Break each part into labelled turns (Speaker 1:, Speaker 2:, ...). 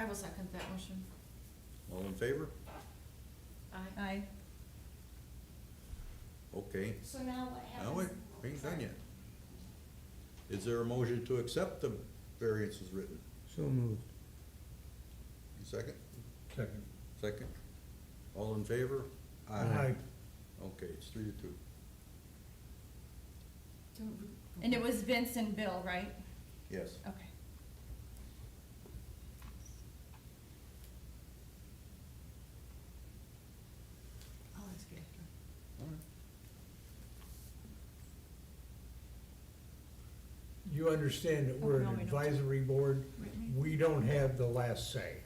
Speaker 1: I will second that motion.
Speaker 2: All in favor?
Speaker 1: Aye.
Speaker 3: Aye.
Speaker 2: Okay,
Speaker 4: So now what
Speaker 2: now
Speaker 4: happens?
Speaker 2: wait, we ain't done yet. Is there a motion to accept the variance as written?
Speaker 5: So moved.
Speaker 2: Second,
Speaker 5: Second.
Speaker 2: second? All in favor?
Speaker 5: Aye.
Speaker 2: Okay, it's three to two.
Speaker 3: And it was Vince and Bill, right?
Speaker 2: Yes.
Speaker 1: Oh.
Speaker 3: Okay.
Speaker 1: I'll ask you after.
Speaker 5: You understand that we're
Speaker 3: Oh, no,
Speaker 5: an
Speaker 3: we don't. Mm-hmm.
Speaker 5: advisory board, we don't have the last say.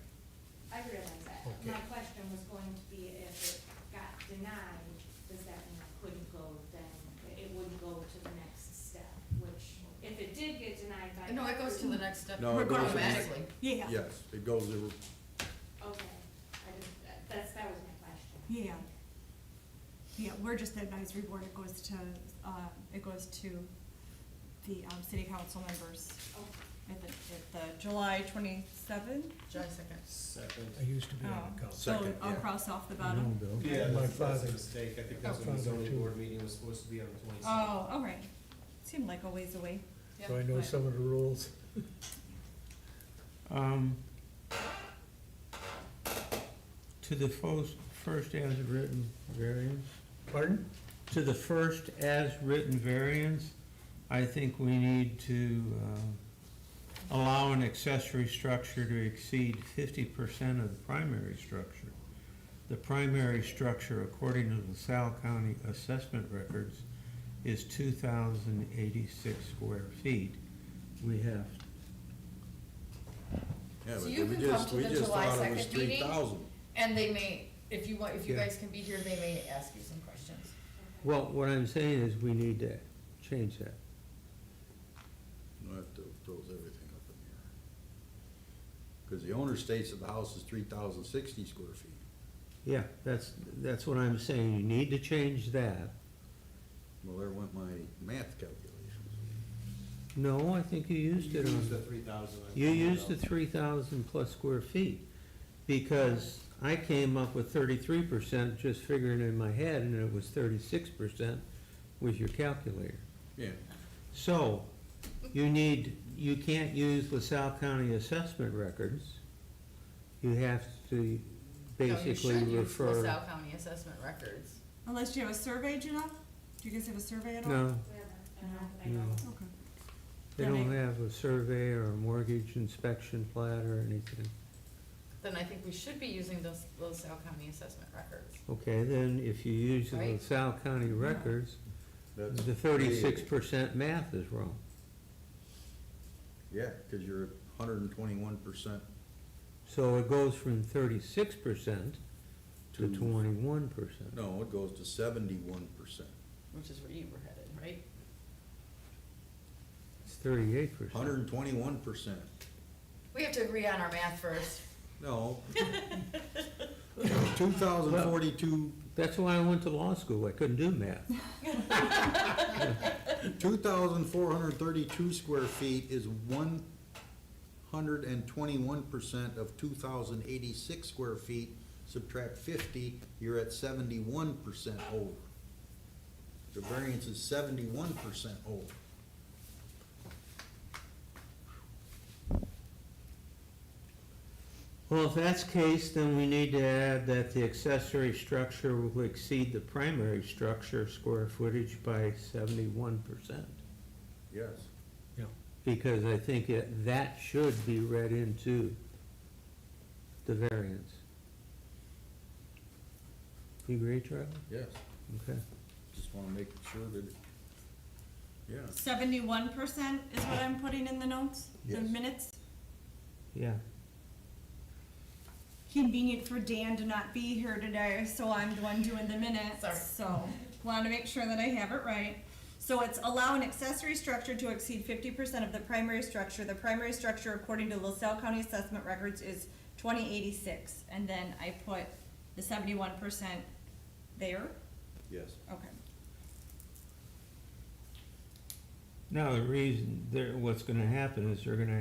Speaker 4: I realize that.
Speaker 5: Okay.
Speaker 4: My question was going to be if it got denied, does that mean it couldn't go then? It wouldn't go to the next step, which if it did get denied by.
Speaker 1: No, it goes to the next step
Speaker 2: No, it goes to the next-
Speaker 1: automatically.
Speaker 6: Yeah,
Speaker 2: Yes, it goes, to-
Speaker 4: Okay, I just, that- that's, that was my question.
Speaker 6: yeah. Yeah, we're just the advisory board, it goes to, uh, it goes to the, um, city council members
Speaker 4: Okay.
Speaker 3: At the, at the July twenty-seven?
Speaker 1: July second.
Speaker 5: I used to be
Speaker 6: um,
Speaker 5: on the
Speaker 3: Oh.
Speaker 5: council.
Speaker 2: Second,
Speaker 3: So I'll
Speaker 2: yeah.
Speaker 3: cross off the bottom?
Speaker 5: Bill.
Speaker 7: Yeah,
Speaker 5: My
Speaker 7: that's, that's
Speaker 5: father,
Speaker 7: a mistake, I think that's when the
Speaker 5: Father
Speaker 7: zoning
Speaker 5: too.
Speaker 7: board meeting was supposed to be on the twenty-second.
Speaker 3: Oh, all right. Seemed like a ways away.
Speaker 5: so I know some of the rules.
Speaker 8: Um, to the first, first as written variance,
Speaker 5: Pardon?
Speaker 8: to the first as written variance, I think we need to, uh, allow an accessory structure to exceed fifty percent of the primary structure. The primary structure, according to the Sal County assessment records, is two thousand eighty-six square feet. We have
Speaker 2: yeah,
Speaker 1: So
Speaker 2: but
Speaker 1: you
Speaker 2: we
Speaker 1: can come
Speaker 2: just,
Speaker 1: to
Speaker 2: we
Speaker 1: the
Speaker 2: just
Speaker 1: July
Speaker 2: thought it was
Speaker 1: second meeting.
Speaker 2: three thousand.
Speaker 1: And they may, if you want, if you
Speaker 8: Yeah.
Speaker 1: guys can be here, they may ask you some questions.
Speaker 8: Well, what I'm saying is we need to change that.
Speaker 2: No, that th- throws everything up in the air. Cause the owner states that the house is three thousand sixty square feet.
Speaker 8: Yeah, that's, that's what I'm saying. You need to change that.
Speaker 2: Well, there went my math calculations.
Speaker 8: No, I think you used
Speaker 7: You
Speaker 8: it
Speaker 7: used the
Speaker 8: on,
Speaker 7: three thousand.
Speaker 8: you used the three thousand plus square feet. Because I came up with thirty-three percent just figuring in my head and it was thirty-six percent with your calculator.
Speaker 2: Yeah,
Speaker 8: So, you need, you can't use LaSalle County assessment records. You have to
Speaker 1: No, you
Speaker 8: basically
Speaker 1: should use
Speaker 8: refer.
Speaker 1: LaSalle County assessment records.
Speaker 6: Unless you have a survey, Janelle? Do you guys have a survey at all?
Speaker 8: No,
Speaker 4: We have a- an op- I
Speaker 8: No.
Speaker 4: don't-
Speaker 6: Okay.
Speaker 8: They
Speaker 6: Then
Speaker 8: don't
Speaker 6: I-
Speaker 8: have a survey or a mortgage inspection plat or anything.
Speaker 1: Then I think we should be using those LaSalle County assessment records.
Speaker 8: Okay, then if you use the
Speaker 1: Right.
Speaker 8: LaSalle County records,
Speaker 2: that's.
Speaker 8: the thirty-six percent math is wrong.
Speaker 2: Yeah, cause you're hundred and twenty-one percent
Speaker 8: So it goes from thirty-six percent to
Speaker 2: To-
Speaker 8: twenty-one percent.
Speaker 2: No, it goes to seventy-one percent,
Speaker 1: Which is where you were headed, right?
Speaker 8: It's thirty-eight percent.
Speaker 2: hundred and twenty-one percent.
Speaker 1: We have to agree on our math first.
Speaker 2: No. Two thousand forty-two,
Speaker 8: That's why I went to law school. I couldn't do math.
Speaker 2: two thousand four hundred thirty-two square feet is one hundred and twenty-one percent of two thousand eighty-six square feet. Subtract fifty, you're at seventy-one percent over. The variance is seventy-one percent over.
Speaker 8: Well, if that's the case, then we need to add that the accessory structure will exceed the primary structure square footage by seventy-one percent.
Speaker 2: Yes.
Speaker 8: because I think it, that should be read into the variance. You agree, Charlie?
Speaker 2: Yes,
Speaker 8: Okay.
Speaker 2: just wanna make sure that, it- yeah,
Speaker 3: Seventy-one percent is what I'm putting in the notes, the
Speaker 2: Yes.
Speaker 3: minutes?
Speaker 8: Yeah,
Speaker 3: Convenient for Dan to not be here today, so I'm the one doing the
Speaker 1: Sorry.
Speaker 3: minutes, so wanted to make sure that I have it right. So it's allow an accessory structure to exceed fifty percent of the primary structure. The primary structure, according to LaSalle County assessment records, is twenty eighty-six, and then I put the seventy-one percent there,
Speaker 2: yes.
Speaker 3: okay.
Speaker 8: now the reason, there, what's gonna happen is they're gonna